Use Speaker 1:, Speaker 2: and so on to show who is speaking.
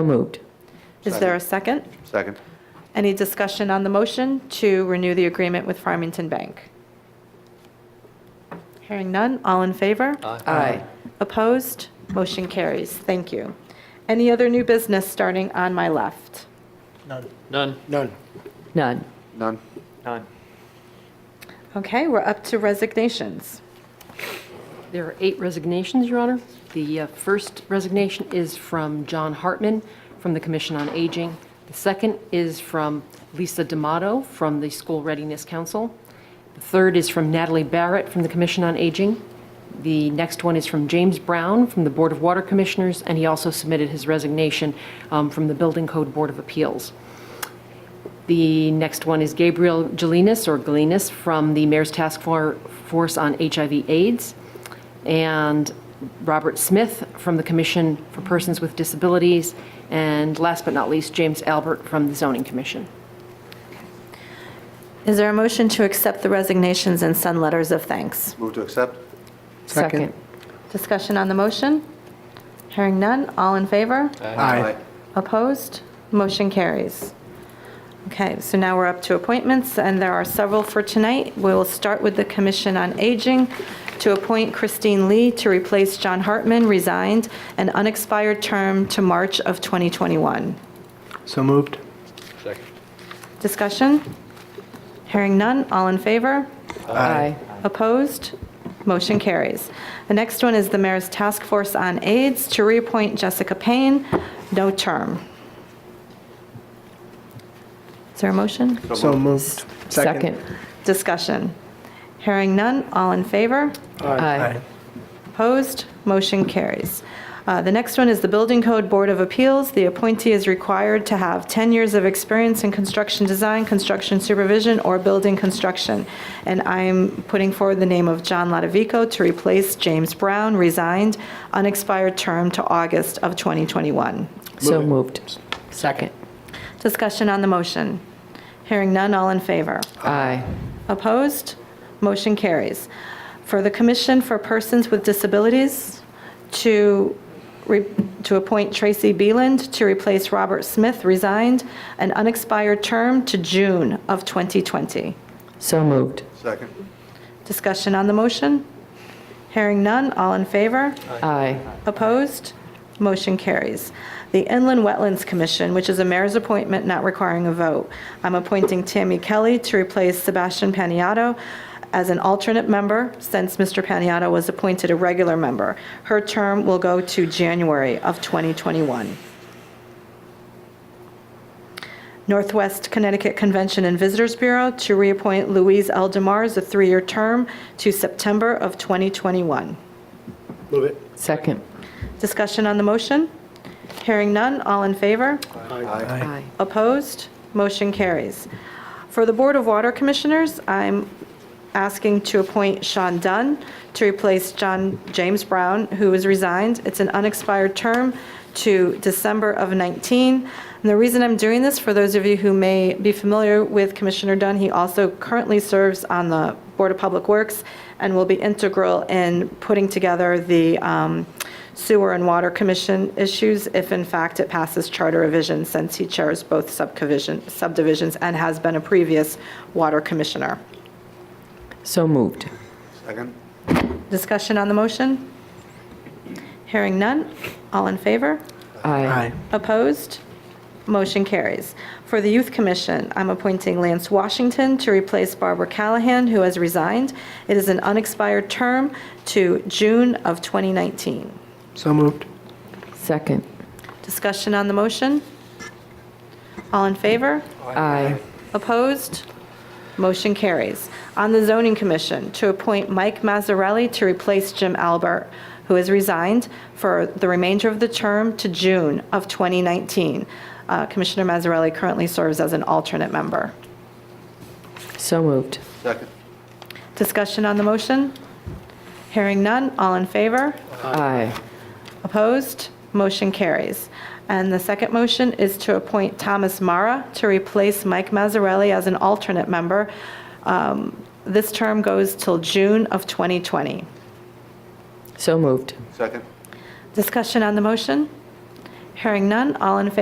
Speaker 1: So moved.
Speaker 2: Is there a second?
Speaker 3: Second.
Speaker 2: Any discussion on the motion to renew the agreement with Farmington Bank? Hearing none, all in favor?
Speaker 1: Aye.
Speaker 2: Opposed? Motion carries. Thank you. Any other new business starting on my left?
Speaker 4: None.
Speaker 5: None.
Speaker 1: None.
Speaker 3: None.
Speaker 4: None.
Speaker 2: Okay, we're up to resignations.
Speaker 6: There are eight resignations, Your Honor. The uh, first resignation is from John Hartman from the Commission on Aging. The second is from Lisa D'Amato from the School Readiness Council. The third is from Natalie Barrett from the Commission on Aging. The next one is from James Brown from the Board of Water Commissioners, and he also submitted his resignation um, from the Building Code Board of Appeals. The next one is Gabriel Gelinas, or Galinas, from the Mayor's Task For- Force on HIV/AIDS, and Robert Smith from the Commission for Persons with Disabilities, and last but not least, James Albert from the Zoning Commission.
Speaker 2: Is there a motion to accept the resignations and send letters of thanks?
Speaker 3: Move to accept?
Speaker 5: Second.
Speaker 2: Discussion on the motion? Hearing none, all in favor?
Speaker 5: Aye.
Speaker 2: Opposed? Motion carries. Okay, so now we're up to appointments, and there are several for tonight. We will start with the Commission on Aging to appoint Christine Lee to replace John Hartman, resigned, an unexpired term to March of 2021.
Speaker 5: So moved.
Speaker 4: Second.
Speaker 2: Discussion? Hearing none, all in favor?
Speaker 1: Aye.
Speaker 2: Opposed? Motion carries. The next one is the Mayor's Task Force on AIDS to reappoint Jessica Payne, no term. Is there a motion?
Speaker 5: So moved.
Speaker 1: Second.
Speaker 2: Discussion. Hearing none, all in favor?
Speaker 1: Aye.
Speaker 2: Opposed? Motion carries. Uh, The next one is the Building Code Board of Appeals. The appointee is required to have 10 years of experience in construction design, construction supervision, or building construction. And I'm putting forward the name of John Lodovico to replace James Brown, resigned, unexpired term to August of 2021.
Speaker 1: So moved. Second.
Speaker 2: Discussion on the motion. Hearing none, all in favor?
Speaker 1: Aye.
Speaker 2: Opposed? Motion carries. For the Commission for Persons with Disabilities, to, re- to appoint Tracy Beeland to replace Robert Smith, resigned, an unexpired term to June of 2020.
Speaker 1: So moved.
Speaker 3: Second.
Speaker 2: Discussion on the motion? Hearing none, all in favor?
Speaker 1: Aye.
Speaker 2: Opposed? Motion carries. The Inland Wetlands Commission, which is a mayor's appointment not requiring a vote. I'm appointing Tammy Kelly to replace Sebastian Paniato as an alternate member since Mr. Paniato was appointed a regular member. Her term will go to January of 2021. Northwest Connecticut Convention and Visitors Bureau to reappoint Louise L. DeMar as a three-year term to September of 2021.
Speaker 5: Move it.
Speaker 1: Second.
Speaker 2: Discussion on the motion? Hearing none, all in favor?
Speaker 3: Aye.
Speaker 1: Aye.
Speaker 2: Opposed? Motion carries. For the Board of Water Commissioners, I'm asking to appoint Sean Dunn to replace John James Brown, who is resigned. It's an unexpired term to December of 19. And the reason I'm doing this, for those of you who may be familiar with Commissioner Dunn, he also currently serves on the Board of Public Works and will be integral in putting together the um, sewer and water commission issues if in fact it passes charter revision, since he chairs both subdivision- subdivisions and has been a previous water commissioner.
Speaker 1: So moved.
Speaker 3: Second.
Speaker 2: Discussion on the motion? Hearing none. All in favor?
Speaker 1: Aye.
Speaker 2: Opposed? Motion carries. For the Youth Commission, I'm appointing Lance Washington to replace Barbara Callahan, who has resigned. It is an unexpired term to June of 2019.
Speaker 5: So moved.
Speaker 1: Second.
Speaker 2: Discussion on the motion? All in favor?
Speaker 1: Aye.
Speaker 2: Opposed? Motion carries. On the Zoning Commission, to appoint Mike Mazzarelli to replace Jim Albert, who has resigned for the remainder of the term to June of 2019. Uh, Commissioner Mazzarelli currently serves as an alternate member.
Speaker 1: So moved.
Speaker 3: Second.
Speaker 2: Discussion on the motion? Hearing none, all in favor?
Speaker 1: Aye.
Speaker 2: Opposed? Motion carries. And the second motion is to appoint Thomas Mara to replace Mike Mazzarelli as an alternate member. Um, This term goes till June of 2020.
Speaker 1: So moved.
Speaker 3: Second.
Speaker 2: Discussion on the motion? Hearing none, all in favor?